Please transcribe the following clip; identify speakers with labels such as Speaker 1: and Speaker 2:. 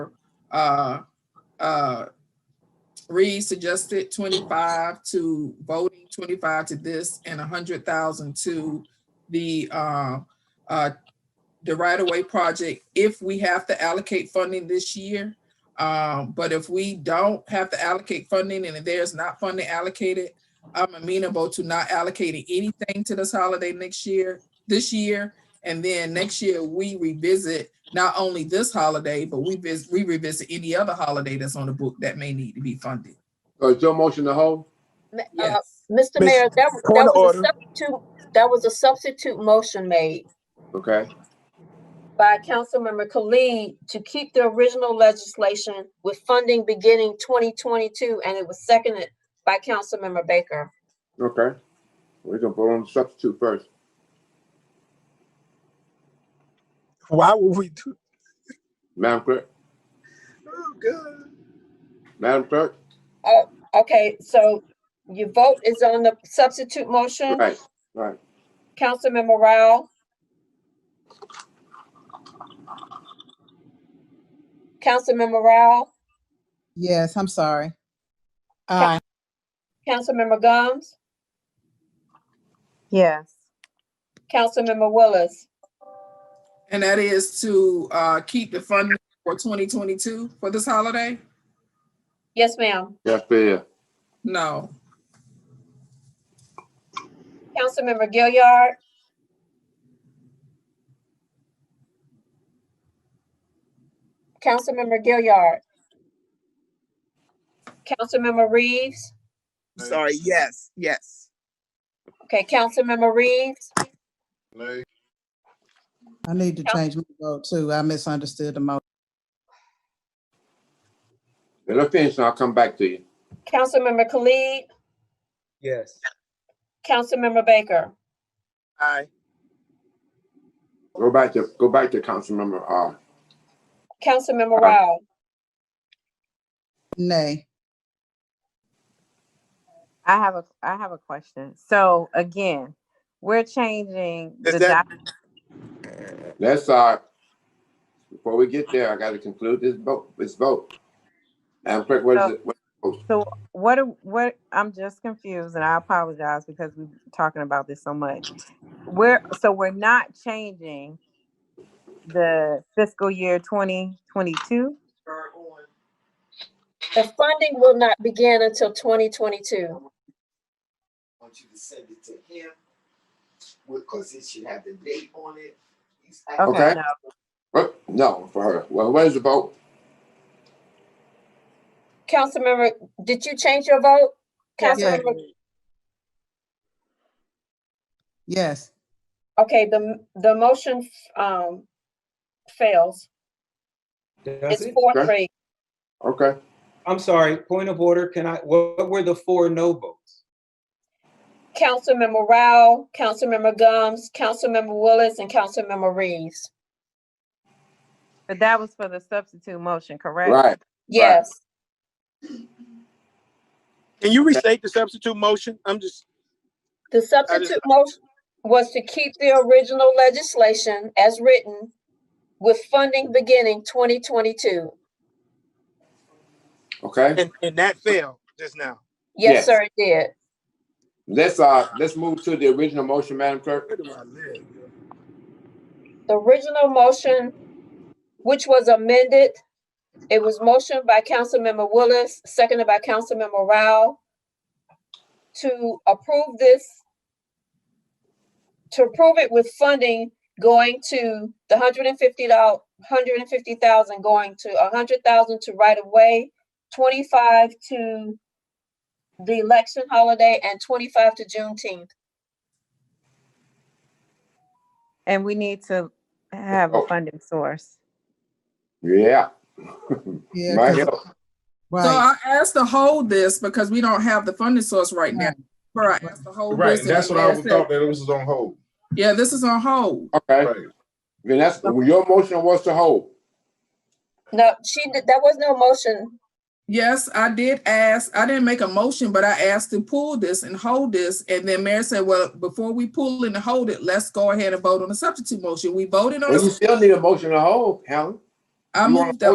Speaker 1: uh, uh, Reed suggested twenty-five to voting, twenty-five to this, and a hundred thousand to the, uh, uh, the right-of-way project, if we have to allocate funding this year. Um, but if we don't have to allocate funding and if there's not funding allocated, I'm amenable to not allocating anything to this holiday next year, this year. And then next year, we revisit not only this holiday, but we vis, we revisit any other holiday that's on the book that may need to be funded.
Speaker 2: So is your Uh, motion to hold?
Speaker 3: Ma- uh,
Speaker 1: Yes.
Speaker 3: Mr.
Speaker 4: Miss-
Speaker 3: Mayor, that that
Speaker 4: point
Speaker 3: was
Speaker 4: of
Speaker 3: a
Speaker 4: order.
Speaker 3: substitute, that was a substitute motion made
Speaker 2: Okay,
Speaker 3: by Councilmember Khalid to keep the original legislation with funding beginning twenty twenty-two, and it was seconded by Councilmember Baker.
Speaker 2: okay. We're gonna vote on the substitute first.
Speaker 4: Why would we do?
Speaker 2: Madam Clerk,
Speaker 4: Oh, God.
Speaker 2: Madam Clerk,
Speaker 3: Okay, so your vote is on the substitute motion,
Speaker 2: right, right.
Speaker 3: Councilmember Rao. Councilmember Rao,
Speaker 5: Yes, I'm sorry. Aye,
Speaker 3: Councilmember Gomes,
Speaker 6: Yes.
Speaker 3: Councilmember Willis.
Speaker 1: And that is to, uh, keep the funding for twenty twenty-two for this holiday?
Speaker 3: Yes, ma'am.
Speaker 2: Yes, there.
Speaker 1: No.
Speaker 3: Councilmember Gilliard, Councilmember Gilliard, Councilmember Reeves.
Speaker 7: Sorry, yes, yes.
Speaker 3: Okay, Councilmember Reeves,
Speaker 5: I need to
Speaker 3: Coun-
Speaker 5: change my vote too. I misunderstood the motion.
Speaker 2: Let her finish and I'll come back to you.
Speaker 3: Councilmember Khalid,
Speaker 4: Yes.
Speaker 3: Councilmember Baker.
Speaker 7: Aye.
Speaker 2: Go back to, go back to Councilmember, uh,
Speaker 3: Councilmember
Speaker 2: Aye.
Speaker 3: Rao,
Speaker 5: Nay,
Speaker 6: I have a, I have a question. So again, we're changing
Speaker 7: Is
Speaker 6: the
Speaker 7: that-
Speaker 6: doc-
Speaker 2: let's, uh, before we get there, I gotta conclude this vote, this vote. Madam Clerk, what is it? What-
Speaker 6: so what, do- what, I'm just confused and I apologize because we've been talking about this so much. We're, so we're not changing the fiscal year twenty twenty-two?
Speaker 3: the funding will not begin until twenty twenty-two.
Speaker 8: I want you to send it to him, because it should have the date on it. He's- I-
Speaker 2: Okay.
Speaker 6: Okay, no,
Speaker 2: What? No, for her. Well, what is the vote?
Speaker 3: Councilmember, did you change your vote?
Speaker 5: Yes.
Speaker 3: Councilmember
Speaker 5: yes,
Speaker 3: Okay, the, the motion, um, fails.
Speaker 9: Does
Speaker 3: It's
Speaker 9: it?
Speaker 3: four,
Speaker 2: Okay.
Speaker 3: three.
Speaker 2: Okay,
Speaker 9: I'm sorry, point of order, can I, what what were the four no votes?
Speaker 3: Councilmember Rao, Councilmember Gums, Councilmember Willis, and Councilmember Reeves.
Speaker 6: but that was for the substitute motion, correct?
Speaker 2: right.
Speaker 3: Yes,
Speaker 4: Can you restate the substitute motion? I'm just,
Speaker 3: the substitute motion was to keep the original legislation as written with funding beginning twenty twenty-two.
Speaker 2: Okay,
Speaker 4: and, and that failed just now.
Speaker 3: Yes,
Speaker 2: Yes.
Speaker 3: sir, it did.
Speaker 2: let's, uh, let's move to the original motion, Madam Clerk.
Speaker 4: Where do I live?
Speaker 3: The original motion, which was amended, it was motioned by Councilmember Willis, seconded by Councilmember Rao to approve this, to approve it with funding going to the hundred and fifty dollars, hundred and fifty thousand going to a hundred thousand to right of way, twenty-five to the election holiday, and twenty-five to Juneteenth.
Speaker 6: And we need to have a
Speaker 2: Oh.
Speaker 6: funding source.
Speaker 2: Yeah,
Speaker 5: yeah,
Speaker 2: right
Speaker 5: 'cause-
Speaker 2: here.
Speaker 1: So
Speaker 5: right.
Speaker 1: I asked to hold this because we don't have the funding source right now. Bro, I asked to hold
Speaker 10: Right,
Speaker 1: this.
Speaker 10: and that's what I was thought that it was on hold.
Speaker 1: Yeah, this is on hold.
Speaker 2: Okay,
Speaker 10: Right.
Speaker 2: then that's, your motion was to hold.
Speaker 3: No, she, did- that was no motion.
Speaker 1: Yes, I did ask, I didn't make a motion, but I asked to pull this and hold this, and then Mayor said, well, before we pull and hold it, let's go ahead and vote on the substitute motion. We voted on,
Speaker 2: Well, you
Speaker 1: the-
Speaker 2: still need a motion to hold, Helen.
Speaker 1: I
Speaker 2: you wanna
Speaker 1: moved the